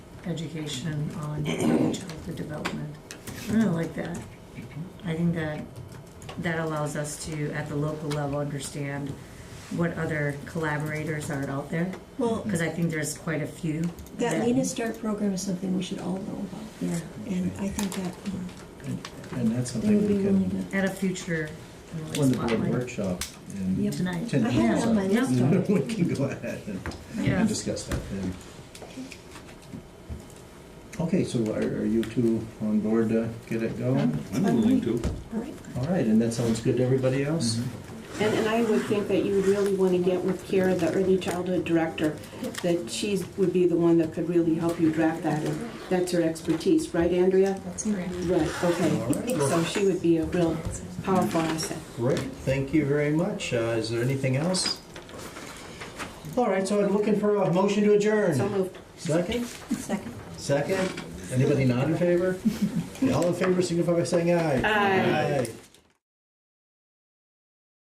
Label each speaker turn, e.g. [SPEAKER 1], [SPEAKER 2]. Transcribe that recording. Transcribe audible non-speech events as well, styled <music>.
[SPEAKER 1] education on early childhood development. I really like that. I think that, that allows us to, at the local level, understand what other collaborators are out there,
[SPEAKER 2] Well,
[SPEAKER 1] because I think there's quite a few.
[SPEAKER 2] that Lean and Start program is something we should all know about,
[SPEAKER 1] Yeah,
[SPEAKER 2] and I think that um,
[SPEAKER 3] And that's
[SPEAKER 2] they would
[SPEAKER 3] something
[SPEAKER 2] be
[SPEAKER 3] we
[SPEAKER 2] willing
[SPEAKER 3] can,
[SPEAKER 2] to.
[SPEAKER 1] at a future, you know, like,
[SPEAKER 3] when the board
[SPEAKER 1] spotlight.
[SPEAKER 3] workshop in <laughs>
[SPEAKER 2] Yep.
[SPEAKER 3] ten
[SPEAKER 1] Tonight.
[SPEAKER 3] days.
[SPEAKER 2] I had it on my
[SPEAKER 1] Yeah.
[SPEAKER 2] list
[SPEAKER 3] out,
[SPEAKER 2] already.
[SPEAKER 3] We can go ahead and-
[SPEAKER 1] Yeah.
[SPEAKER 3] and discuss that then. Okay, so are, are you two on board to get it going?
[SPEAKER 4] I'm willing to.
[SPEAKER 2] All right.
[SPEAKER 3] All right, and that sounds good to everybody else?
[SPEAKER 2] Mm-hmm.
[SPEAKER 5] And, and I would think that you would really want to get with Kara, the early childhood director, that she would be the one that could really help you draft that, and that's her expertise, right, Andrea?
[SPEAKER 6] That's great.
[SPEAKER 5] Right,
[SPEAKER 3] All
[SPEAKER 5] okay.
[SPEAKER 3] right.
[SPEAKER 5] So she would be a real powerful asset.
[SPEAKER 3] Great, thank you very much. Uh, is there anything else? All right, so I'm looking for a motion to
[SPEAKER 5] So
[SPEAKER 3] adjourn.
[SPEAKER 5] moved.
[SPEAKER 3] Second?
[SPEAKER 6] Second.
[SPEAKER 2] <laughs>
[SPEAKER 3] Second? Anybody not in favor? All in favor, signify by saying aye.
[SPEAKER 5] Aye.
[SPEAKER 3] Aye.